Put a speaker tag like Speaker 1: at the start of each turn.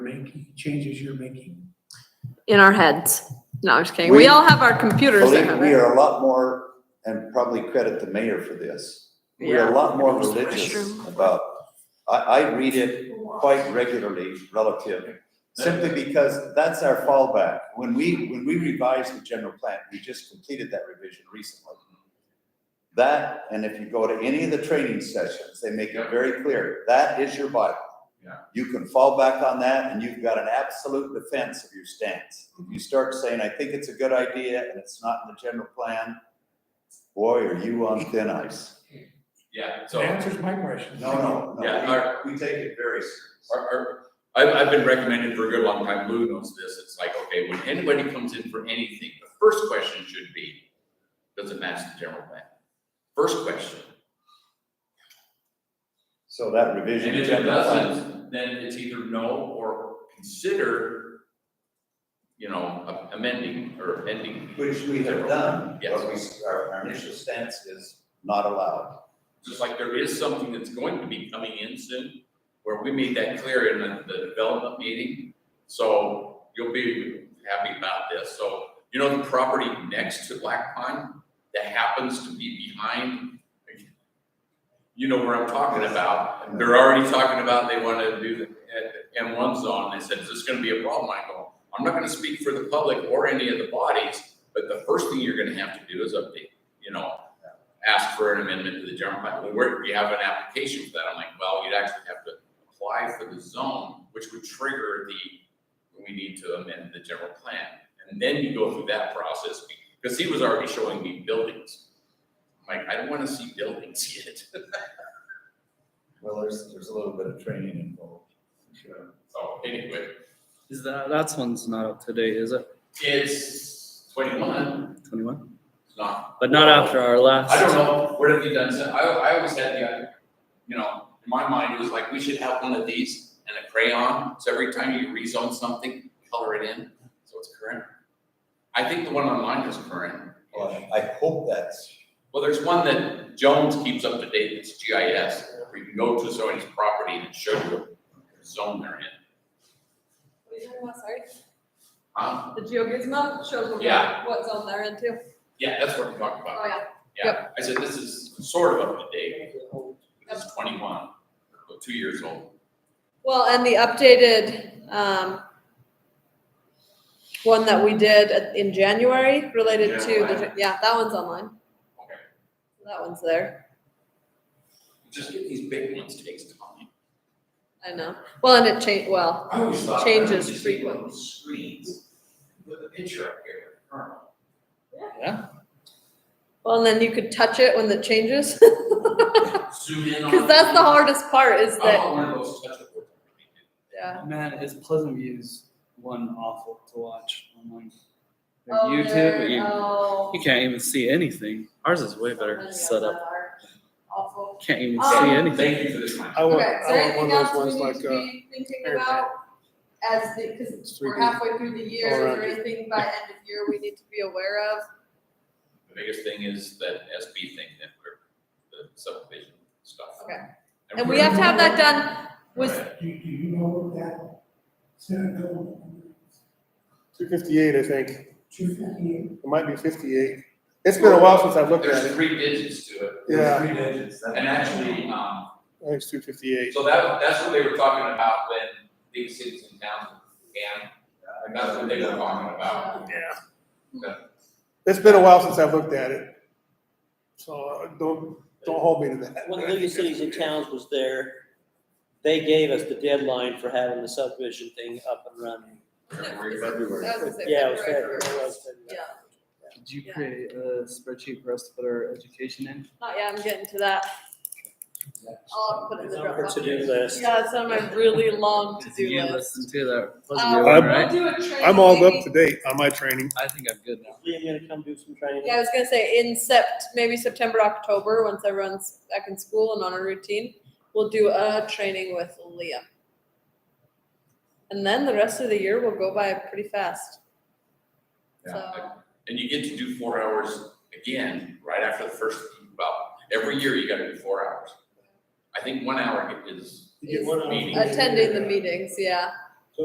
Speaker 1: making, changes you're making.
Speaker 2: in our heads. No, I'm just kidding. We
Speaker 3: We-
Speaker 2: all have our computers that
Speaker 3: Believe
Speaker 2: have
Speaker 3: me, we
Speaker 2: it.
Speaker 3: are a lot more, and probably credit the mayor for this, we're a lot more religious about, I, I read it quite regularly relative, simply because that's our fallback. When we, when we revised the general plan, we just completed that revision recently. That, and if you go to any of the training sessions, they make it very clear, that is your Bible.
Speaker 4: Yeah.
Speaker 3: You can fall back on that and you've got an absolute defense of your stance. If you start saying, I think it's a good idea and it's not in the general plan, boy, are you on thin ice.
Speaker 4: Yeah,
Speaker 1: That
Speaker 4: so our,
Speaker 1: answers my question.
Speaker 3: No, no, no.
Speaker 4: Yeah, our-
Speaker 3: We we take it very seriously.
Speaker 4: our, I've, I've been recommended for a good long time, Lou knows this, it's like, okay, when anybody comes in for anything, the first question should be, does it match the general plan? First question,
Speaker 3: So that
Speaker 4: and
Speaker 3: revision.
Speaker 4: if it
Speaker 3: general plan-
Speaker 4: doesn't, then it's either no or consider, you know, amending or ending.
Speaker 3: Which we have done.
Speaker 4: Yes.
Speaker 3: But we, our, our initial stance is not allowed.
Speaker 4: Just like there is something that's going to be coming in soon, where we made that clear in the, the development meeting. So you'll be happy about this. So, you know, the property next to Black Pine that happens to be behind, you know where I'm talking about. They're already talking about they want to do the uh, M one zone. They said, is this gonna be a problem? I go, I'm not gonna speak for the public or any of the bodies, but the first thing you're gonna have to do is update, you know, ask for an amendment to the general plan. Well, where, we have an application for that. I'm like, well, you'd actually have to apply for the zone, which would trigger the, we need to amend the general plan. And then you go through that process, because he was already showing me buildings. I'm like, I don't wanna see buildings yet.
Speaker 3: Well, there's, there's a little bit of training involved.
Speaker 4: So anyway,
Speaker 5: Is that, that's one's not up to date, is it?
Speaker 4: it's twenty-one,
Speaker 5: Twenty-one?
Speaker 4: it's not,
Speaker 5: But not after our last.
Speaker 4: I don't know, what have you done since, I, I always had the, idea, you know, in my mind, it was like, we should have one of these and a crayon, so every time you rezone something, color it in, so it's current. I think the one online is current.
Speaker 3: Well, I hope that's,
Speaker 4: Well, there's one that Jones keeps up to date, it's GIS, where you can go to somebody's property and it shows you what zone they're in. Huh?
Speaker 2: The GeoGizmo shows
Speaker 4: what- Yeah.
Speaker 2: what zone they're in too.
Speaker 4: Yeah, that's what I'm talking about.
Speaker 2: Oh, yeah.
Speaker 4: Yeah, I said, this is sort of up to date, this is twenty-one, or two years old.
Speaker 2: Well, and the updated, um, one that we did at- in January related to, the- yeah, that one's online.
Speaker 4: Okay.
Speaker 2: That one's there.
Speaker 4: Just get these big ones takes time.
Speaker 2: I know. Well, and it changed, well,
Speaker 4: I always thought.
Speaker 2: Changes
Speaker 4: just take one of those Screens, put the picture up here. or-
Speaker 2: well, and then you could touch it when it changes.
Speaker 4: Zoom in on.
Speaker 2: Cause that's the hardest part is
Speaker 4: I
Speaker 5: Oh.
Speaker 2: that,
Speaker 4: want one of those touchable.
Speaker 2: yeah.
Speaker 5: Man, is Pleasant View's one awful to watch online? Their
Speaker 2: Oh,
Speaker 5: YouTube,
Speaker 2: they're-
Speaker 5: you,
Speaker 2: oh.
Speaker 5: you can't even see anything. Ours is way
Speaker 2: Something
Speaker 5: better
Speaker 2: of
Speaker 5: set up.
Speaker 2: that art. oh. Awful.
Speaker 5: Can't even
Speaker 2: Um,
Speaker 4: Oh,
Speaker 5: see anything.
Speaker 4: Thank you for the time.
Speaker 6: I want,
Speaker 2: Okay, so
Speaker 6: I want
Speaker 2: anything
Speaker 6: one of
Speaker 2: else
Speaker 6: those
Speaker 2: we
Speaker 6: ones
Speaker 2: need
Speaker 6: like,
Speaker 2: to
Speaker 6: uh,
Speaker 2: be thinking
Speaker 6: air
Speaker 2: about as the, cause
Speaker 6: It's
Speaker 2: we're
Speaker 6: 3D.
Speaker 2: halfway through the year, is
Speaker 6: All around
Speaker 2: there
Speaker 6: it.
Speaker 2: anything by end of year we need to be aware of?
Speaker 4: The biggest thing is that SB thing that we're, the subdivision stuff.
Speaker 2: Okay. And we
Speaker 4: we're-
Speaker 2: have to have that done with,
Speaker 4: Right.
Speaker 1: Do, do you know what that Senate bill
Speaker 6: two fifty-eight, I think, it
Speaker 1: two fifty-eight?
Speaker 6: might be fifty-eight. It's been a while since I've looked at
Speaker 4: There's
Speaker 6: it.
Speaker 4: three digits to it,
Speaker 6: Yeah,
Speaker 3: three digits. that-
Speaker 4: and actually, um,
Speaker 6: I think it's two fifty-eight.
Speaker 4: So that, that's what they were talking about when big cities and towns began, and that's what they were talking about.
Speaker 6: It's been a while since I've looked at it. So uh, don't, don't hold me to that.
Speaker 7: When the League of Cities and Towns was there, they gave us the deadline for having the subdivision thing up and running.
Speaker 3: February.
Speaker 2: that was it,
Speaker 7: Yeah, it
Speaker 2: February
Speaker 7: was February, it
Speaker 2: first.
Speaker 7: was February.
Speaker 2: Yeah,
Speaker 5: Did you
Speaker 2: Yeah.
Speaker 5: create a spreadsheet for us to put our education in?
Speaker 2: not yet, I'm getting to that. I'll put it in the
Speaker 7: It's on our
Speaker 2: Dropbox.
Speaker 7: to-do list.
Speaker 2: Yeah, it's on my really long to-do
Speaker 5: You
Speaker 2: list.
Speaker 5: listen to that Pleasant
Speaker 2: Uh,
Speaker 5: View
Speaker 2: we'll
Speaker 5: one,
Speaker 6: I'm-
Speaker 5: right?
Speaker 2: do a training
Speaker 6: I'm all
Speaker 2: maybe.
Speaker 6: up to date on my training.
Speaker 5: I think I'm good now.
Speaker 7: Liam gonna come do some training.
Speaker 2: Yeah, I was gonna say in sept, maybe September, October, once everyone's back in school and on a routine, we'll do a training with Liam. And then the rest of the year will go by pretty fast. So,
Speaker 4: And you get to do four hours again, right after the first, well, every year you gotta do four hours. I think one hour is,
Speaker 6: You get one of them.
Speaker 4: Meeting.
Speaker 2: attending the meetings, yeah,